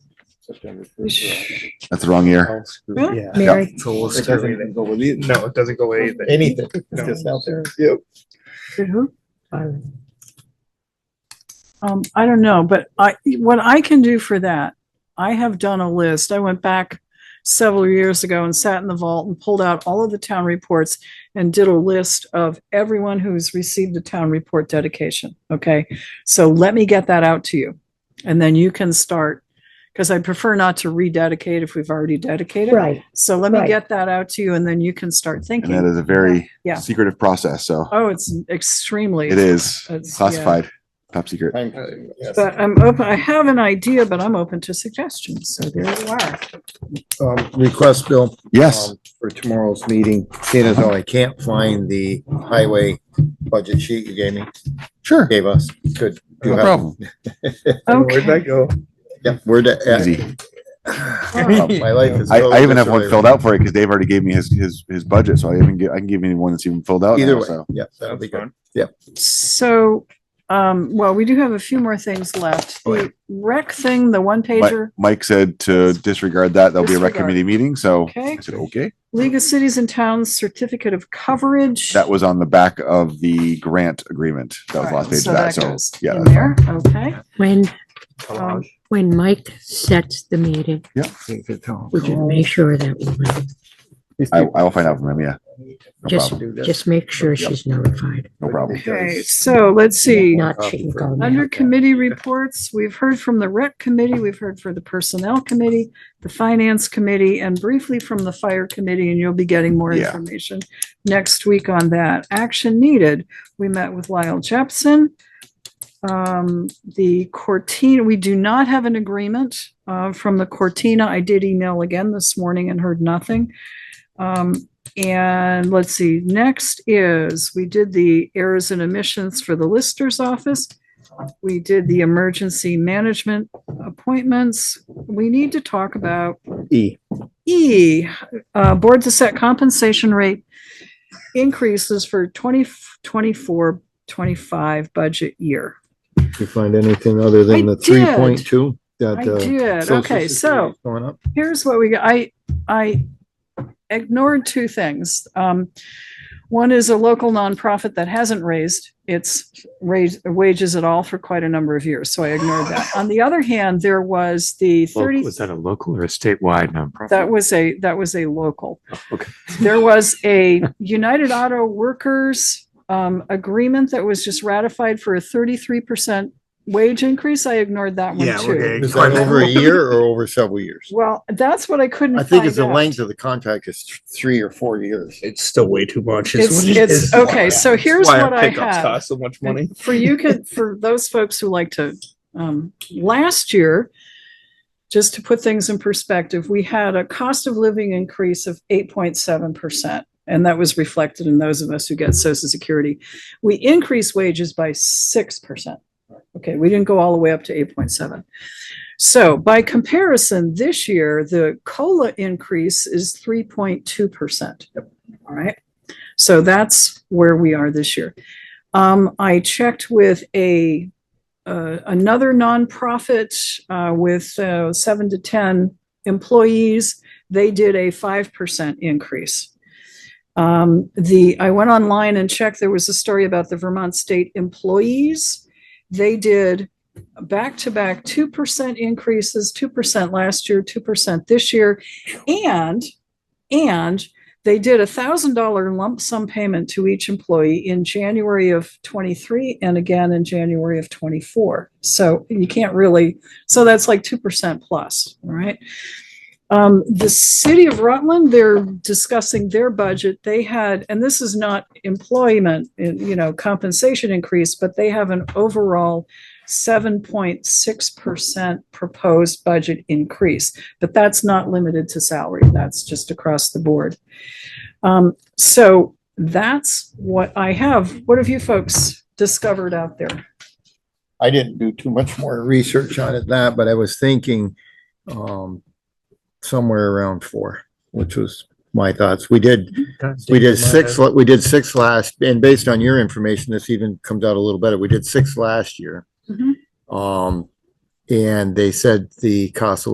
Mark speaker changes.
Speaker 1: September first.
Speaker 2: That's the wrong
Speaker 3: Oh,
Speaker 2: year.
Speaker 3: Really?
Speaker 1: Yeah.
Speaker 3: Mary,
Speaker 1: So we'll screw it. Go with it.
Speaker 4: No, it doesn't go away. but-
Speaker 1: Anything. It's
Speaker 4: No.
Speaker 1: just out there.
Speaker 3: you're who? Um, I don't know, but I, what I can do for that, I have done a list. I went back several years ago and sat in the vault and pulled out all of the town reports and did a list of everyone who's received a town report dedication. Okay, so let me get that out to you. And then you can start, because I prefer not to rededicate if we've already dedicated.
Speaker 5: Right.
Speaker 3: So let me
Speaker 5: Right.
Speaker 3: get that out to you and then you can start
Speaker 2: And that
Speaker 3: thinking.
Speaker 2: is a very
Speaker 3: Yeah.
Speaker 2: secretive process. So
Speaker 3: Oh, it's extremely.
Speaker 2: it is
Speaker 3: It's- yeah.
Speaker 2: classified, top secret.
Speaker 1: Thank
Speaker 4: Uh,
Speaker 1: you. Yes.
Speaker 3: But I'm open, I have an idea, but I'm open to suggestions, so there you are.
Speaker 6: um, request, Bill,
Speaker 2: Yes.
Speaker 6: um, for tomorrow's meeting, seeing as though I can't find the highway budget sheet you gave me,
Speaker 2: Sure.
Speaker 6: gave us, could. you
Speaker 2: No
Speaker 6: have-
Speaker 2: problem.
Speaker 4: Where'd that
Speaker 3: Okay,
Speaker 4: go?
Speaker 6: Yeah, where'd that-
Speaker 2: Easy.
Speaker 6: My life is.
Speaker 2: I, I even
Speaker 6: filled
Speaker 2: have one
Speaker 6: with-
Speaker 2: filled out for you because Dave already gave me his, his, his budget. So I even get, I can give you one that's even filled out.
Speaker 6: Either
Speaker 2: now,
Speaker 6: way,
Speaker 2: so.
Speaker 6: yeah, that'll be good.
Speaker 3: so, um, well, we do have a few more things left.
Speaker 6: Oh, yeah.
Speaker 3: The rec thing, the one
Speaker 2: Mi-
Speaker 3: pager,
Speaker 2: Mike said to disregard that. There'll be a rec
Speaker 3: Disregard.
Speaker 2: committee meeting. So
Speaker 3: Okay.
Speaker 2: I said, okay.
Speaker 3: League of Cities and Towns Certificate of Coverage.
Speaker 2: That was on the back of the grant agreement. That was the
Speaker 3: All
Speaker 2: last
Speaker 3: right,
Speaker 2: page of that. So
Speaker 3: goes
Speaker 2: yeah.
Speaker 3: In
Speaker 2: that's
Speaker 3: there, okay.
Speaker 5: When,
Speaker 4: Oh,
Speaker 3: Um,
Speaker 5: when Mike sets the meeting, we can make sure that woman,
Speaker 2: I, I will find out from him. Yeah. No
Speaker 5: just,
Speaker 2: problem.
Speaker 5: just make sure she's notified.
Speaker 2: No problem.
Speaker 3: Okay, so let's see.
Speaker 5: Not she can go now.
Speaker 3: Under committee reports, we've heard from the rec committee, we've heard from the personnel committee, the finance committee, and briefly from the fire committee, and you'll be getting more
Speaker 2: Yeah.
Speaker 3: information next week on that. Action needed. We met with Lyle Jepson. Um, the Cortina, we do not have an agreement, uh, from the Cortina. I did email again this morning and heard nothing. Um, and let's see, next is, we did the errors and omissions for the Lister's office. We did the emergency management appointments. We need to talk about
Speaker 6: E.
Speaker 3: E, uh, board to set compensation rate increases for 2024-25 budget year.
Speaker 6: You find anything other than
Speaker 3: I
Speaker 6: the
Speaker 3: did.
Speaker 6: three point two? that
Speaker 3: I
Speaker 6: uh,
Speaker 3: did.
Speaker 6: Social
Speaker 3: Okay, so
Speaker 6: Security's Going up?
Speaker 3: here's what we, got. I, I ignored two things. Um, one is a local nonprofit that hasn't raised its raise, wages at all for quite a number of years, so I ignored that. On the other hand, there was the thirty.
Speaker 7: Local- Was that a local or a statewide nonprofit?
Speaker 3: That was a, that was a local.
Speaker 7: Okay.
Speaker 3: There was a United Auto Workers um, agreement that was just ratified for a thirty-three percent wage increase. I ignored that one
Speaker 4: Yeah,
Speaker 3: too.
Speaker 4: okay.
Speaker 6: Is that over a year or over several years?
Speaker 3: Well, that's what I couldn't
Speaker 6: I
Speaker 3: find
Speaker 6: think it's the
Speaker 3: out.
Speaker 6: length of the contract is th- three or four years.
Speaker 4: It's still way too much. is
Speaker 3: It's,
Speaker 4: what it
Speaker 3: it's,
Speaker 4: is.
Speaker 3: okay, so here's
Speaker 4: Why our
Speaker 3: what I
Speaker 4: pickups
Speaker 3: have.
Speaker 4: Cost so much money.
Speaker 3: For you could, for those folks who like to, um, last year, just to put things in perspective, we had a cost of living increase of eight point seven percent. And that was reflected in those of us who get social security. We increased wages by six percent. Okay, we didn't go all the way up to eight point seven. So by comparison, this year, the COLA increase is three point two percent. All right. So that's where we are this year. Um, I checked with a, uh, another nonprofit, uh, with, uh, seven to 10 employees. They did a 5% increase. Um, the, I went online and checked, there was a story about the Vermont State employees. They did back-to-back 2% increases, 2% last year, 2% this year. And, and they did a thousand dollar lump sum payment to each employee in January of twenty-three and again in January of twenty-four. So you can't really, so that's like two percent plus, all right? Um, the city of Rutland, they're discussing their budget. They had, and this is not employment, uh, you know, compensation increase, but they have an overall seven point six percent proposed budget increase. But that's not limited to salary. That's just across the board. Um, so that's what I have. What have you folks discovered out there?
Speaker 6: I didn't do too much more research on it that, but I was thinking, um, somewhere around four, which was my thoughts. We did, we did six, la- we did six last, and based on your information, this even comes out a little better. We did six last year.
Speaker 3: Mhm.
Speaker 6: Um, and they said the cost of